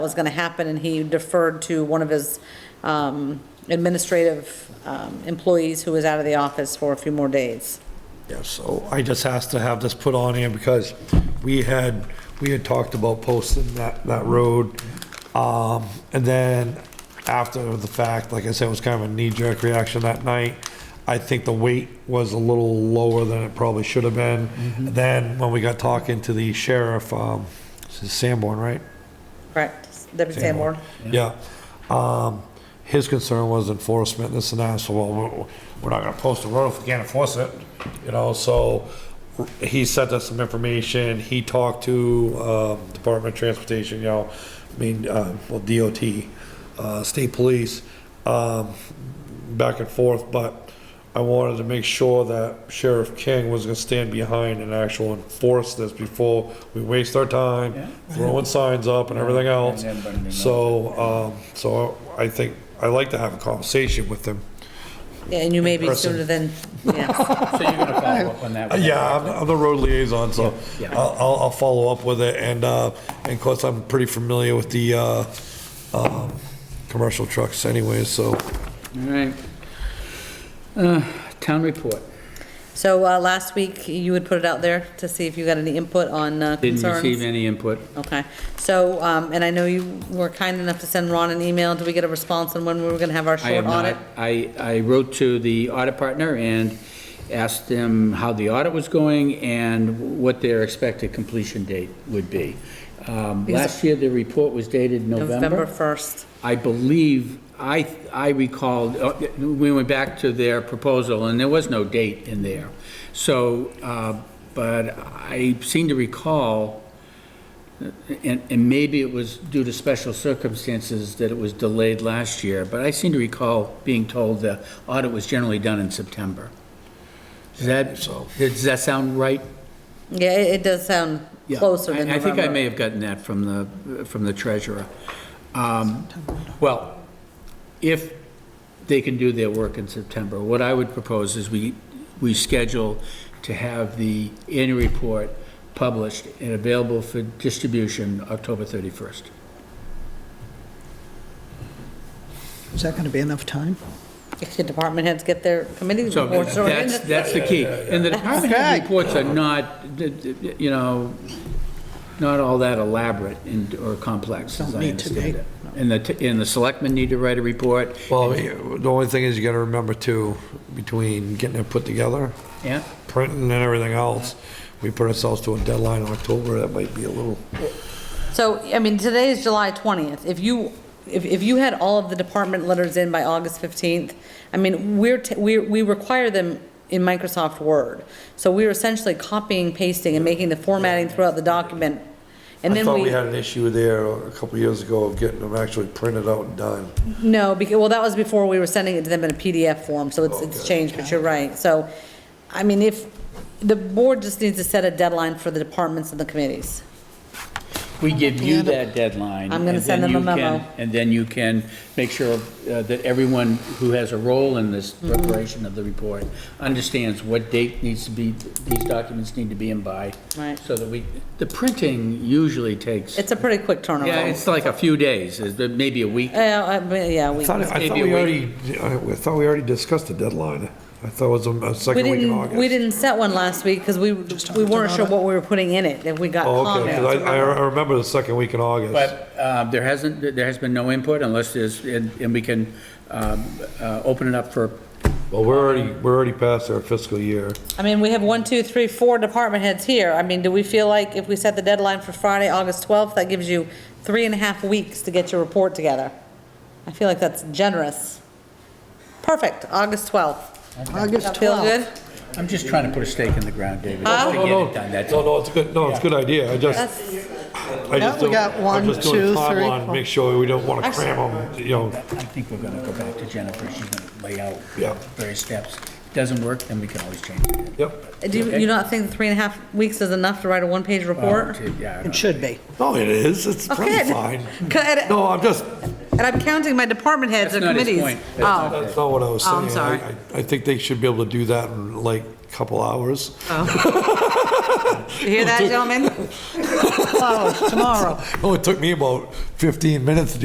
was going to happen, and he deferred to one of his um, administrative um, employees who was out of the office for a few more days. Yeah, so I just asked to have this put on here because we had, we had talked about posting that, that road. Um, and then after the fact, like I said, it was kind of a knee-jerk reaction that night. I think the weight was a little lower than it probably should have been. Then when we got talking to the sheriff, um, this is Sanborn, right? Correct, Deputy Sanborn? Yeah. Um, his concern was enforcement, this and that, so, well, we're- we're not gonna post a road if we can't enforce it, you know, so he sent us some information, he talked to, um, Department of Transportation, you know, I mean, uh, well, DOT, uh, state police, um, back and forth, but I wanted to make sure that Sheriff King was gonna stand behind and actually enforce this before we waste our time throwing signs up and everything else. And then burning So, um, so I think, I like to have a conversation with them. Yeah, And you may In be person. sooner than, yeah. So you're gonna follow up on that? Uh, one? Yeah, I'm, I'm the road liaison, so Yeah, yeah. I'll, I'll, I'll follow up with it, and, uh, and of course, I'm pretty familiar with the, uh, um, commercial trucks anyway, so. All right. Uh, Town report. So uh, last week, you would put it out there to see if you got any input on uh, concerns? Didn't receive any input. Okay, so, um, and I know you were kind enough to send Ron an email. Did we get a response on when we were gonna have our I short have audit? not. I, I wrote to the audit partner and asked them how the audit was going and what their expected completion date would be. Um, Because- Last year, the report was dated November first. I believe, I, I recalled, uh, we went back to their proposal, and there was no date in there. So, uh, but I seem to recall, uh, and, and maybe it was due to special circumstances that it was delayed last year, but I seem to recall being told the audit was generally done in September. Does that, so. does that sound right? Yeah, it, it does sound Yeah. closer than I- November. I think I may have gotten that from the, from the treasurer. Um, Well, if they can do their work in September, what I would propose is we, we schedule to have the annual report published and available for distribution October 31st. Is that going to be enough time? If the department heads get their committee So reports or that's, that's the key. And the department head reports are not, you know, not all that elaborate and, or complex, as Don't I need to be. understand it. And the, t- and the selectmen need to write a report, Well, the only thing is you gotta remember too, between getting it put together, yeah? printing and everything else, we put ourselves to a deadline in October, that might be a little. So, I mean, today is July 20th. If you, if, if you had all of the department letters in by August 15th, I mean, we're, t- we, we require them in Microsoft Word. So we're essentially copying, pasting, and making the formatting throughout the document. And I then thought we had an issue there a couple years ago of getting them actually printed out and done. No, because, well, that was before we were sending it to them in a PDF form, so it's, it's Okay. changed, but you're right. So, I mean, if, the board just needs to set a deadline for the departments and the committees. We give you at it. that deadline. I'm gonna and then send them a you can- memo. And then you can make sure uh, that everyone who has a role in this Mm-hmm. preparation of the report understands what date needs to be, these documents need to be in by. Right. So that we, the printing usually takes, It's a pretty quick turnaround. yeah, it's like a few days, is it maybe a week. Yeah, I mean, yeah, I we. thought, I Maybe thought a we week. already, I thought we already discussed the deadline. I thought it was a- a We second week in didn't, we August. didn't set one last week because we, we weren't sure what we were putting in it, if we got Oh, okay, 'cause comments. I, I remember the second week in August. But uh, there hasn't, there has been no input unless there's, and and we can um, uh, open it up for, Well, we're already, we're already past our fiscal year. I mean, we have one, two, three, four department heads here. I mean, do we feel like if we set the deadline for Friday, August 12th, that gives you three and a half weeks to get your report together? I feel like that's generous. Perfect, August 12th. August That 12th. feel good? I'm just trying to put a stake in the ground, David, Huh? just to No, get no, it done, that's all. no, no, it's a good, no, it's a good idea. I just, That's, I Yeah, just. we don't- got I'm one, just doing two, timeline, three, Make sure we don't want to cram them, you know. I think we're gonna go back to Jennifer, she's gonna lay out Yeah. various steps. Doesn't work, then we can always change it. Yep. uh, do you, you not think three and a half weeks is enough to write a one-page report? Yeah, I It don't- should be. No, it is. It's pretty Okay. fine. Good. No, I'm just, And I'm counting my department heads That's and not his committees. point. That's Oh. not- that's not what I was Oh, saying. I'm sorry. I- I I think they should be able to do that in like a couple hours. You hear that, gentlemen? Flowers, tomorrow. It only took me about 15 minutes to